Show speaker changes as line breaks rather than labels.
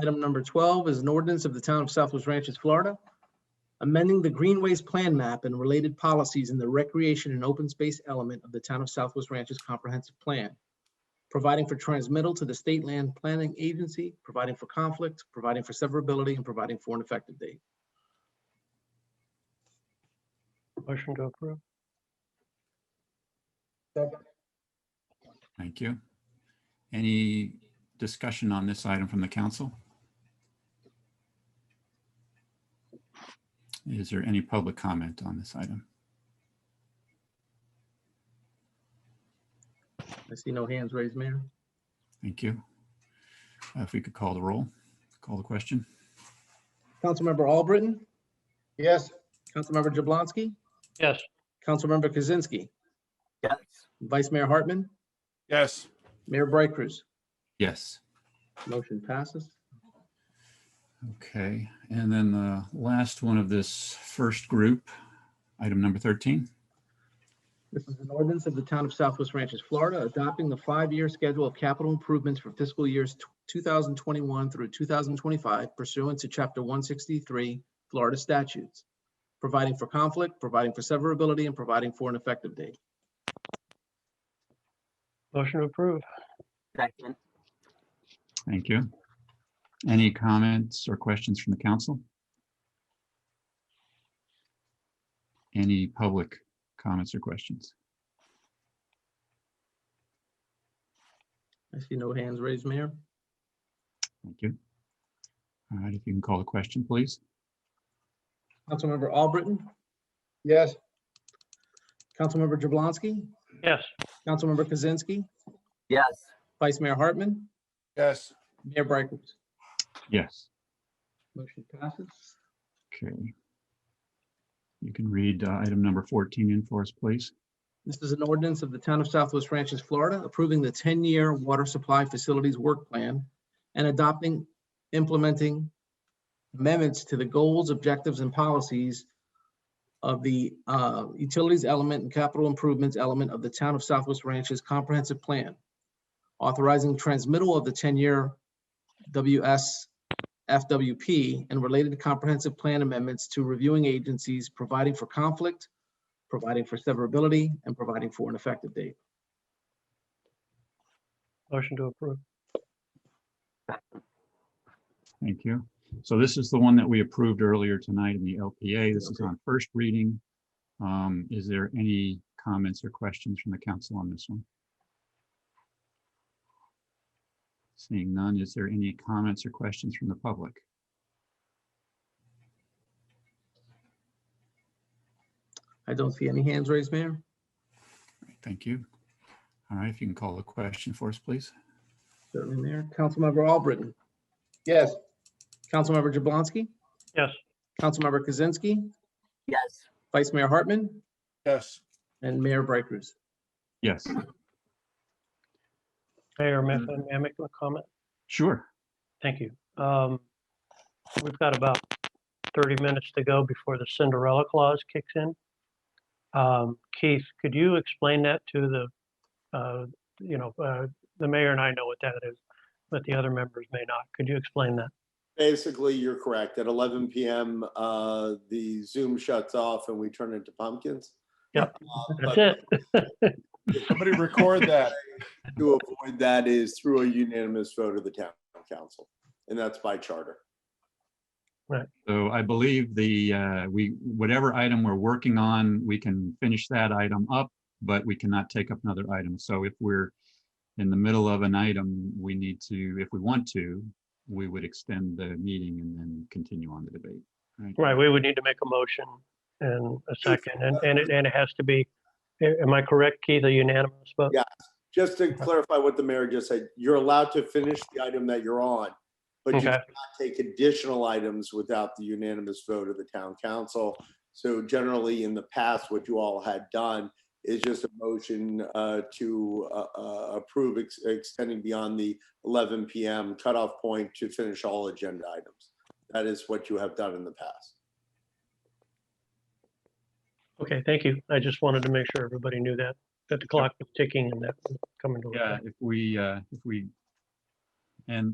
Item number 12 is an ordinance of the Town of Southwest Ranches, Florida, amending the Greenways Plan Map and related policies in the recreation and open space element of the Town of Southwest Ranches Comprehensive Plan, providing for transmittal to the State Land Planning Agency, providing for conflict, providing for severability, and providing for an effective date.
Motion to approve.
Thank you. Any discussion on this item from the council? Is there any public comment on this item?
I see no hands raised, Mayor.
Thank you. Uh, If we could call the roll, call the question.
Councilmember Albritton,
Yes.
Councilmember Jablonski,
Yes.
Councilmember Kaczynski.
Yes.
Vice Mayor Hartman,
yes,
Mayor Bright Cruz.
Yes.
Motion passes.
Okay, and then the last one of this first group, item number 13.
This is an ordinance of the Town of Southwest Ranches, Florida, adopting the five-year schedule of capital improvements for fiscal years tw- 2021 through 2025 pursuant to Chapter 163 Florida statutes, providing for conflict, providing for severability, and providing for an effective date.
Motion to approve.
Second.
Thank you. Any comments or questions from the council? Any public comments or questions?
I see no hands raised, Mayor.
Thank you. All right, if you can call the question, please.
Councilmember Albritton,
Yes.
Councilmember Jablonski,
Yes.
Councilmember Kaczynski,
Yes.
Vice Mayor Hartman,
yes,
Mayor Bright Cruz.
Yes,
Motion passes.
okay. You can read uh, item number 14 in for us, please.
This is an ordinance of the Town of Southwest Ranches, Florida, approving the 10-year water supply facilities work plan and adopting, implementing amendments to the goals, objectives, and policies of the uh, utilities element and capital improvements element of the Town of Southwest Ranches Comprehensive Plan, authorizing transmittal of the 10-year WS FWP and related comprehensive plan amendments to reviewing agencies, providing for conflict, providing for severability, and providing for an effective date.
Motion to approve.
Thank you. So this is the one that we approved earlier tonight in the LPA. This is on first reading. Um, Is there any comments or questions from the council on this one? Seeing none, is there any comments or questions from the public?
I don't see any hands raised, Mayor.
Thank you. All right, if you can call the question for us, please.
Certainly, Mayor. Councilmember Albritton,
Yes.
Councilmember Jablonski,
Yes.
Councilmember Kaczynski,
Yes.
Vice Mayor Hartman,
yes.
and Mayor Bright Cruz.
Yes,
Mayor, may
Mm-hmm.
may I make a comment?
sure.
Thank you. Um, We've got about 30 minutes to go before the Cinderella clause kicks in. Um, Keith, could you explain that to the, uh, you know, uh, the mayor and I know what that is, but the other members may not. Could you explain that?
Basically, you're correct. At 11 PM, uh, the Zoom shuts off and we turn into pumpkins.
Yep,
Uh,
That's
but
it.
Somebody record that.
To avoid that is through a unanimous vote of the town council, and that's by charter.
So I believe the, uh, we, whatever item we're working on, we can finish that item up, but we cannot take up another item. So if we're in the middle of an item, we need to, if we want to, we would extend the meeting and then continue on the debate.
Right, we would need to make a motion and a second,
uh,
and, and it, and it has to be, a- am I correct, Keith, a unanimous vote?
Yeah. Just to clarify what the mayor just said, you're allowed to finish the item that you're on, but you
Okay,
take additional items without the unanimous vote of the town council. So generally, in the past, what you all had done is just a motion uh, to uh, uh, approve ex- extending beyond the 11 PM cutoff point to finish all agenda items. That is what you have done in the past.
okay, thank you. I just wanted to make sure everybody knew that, that the clock was ticking and that was coming to. effect.
If we, uh, if we, and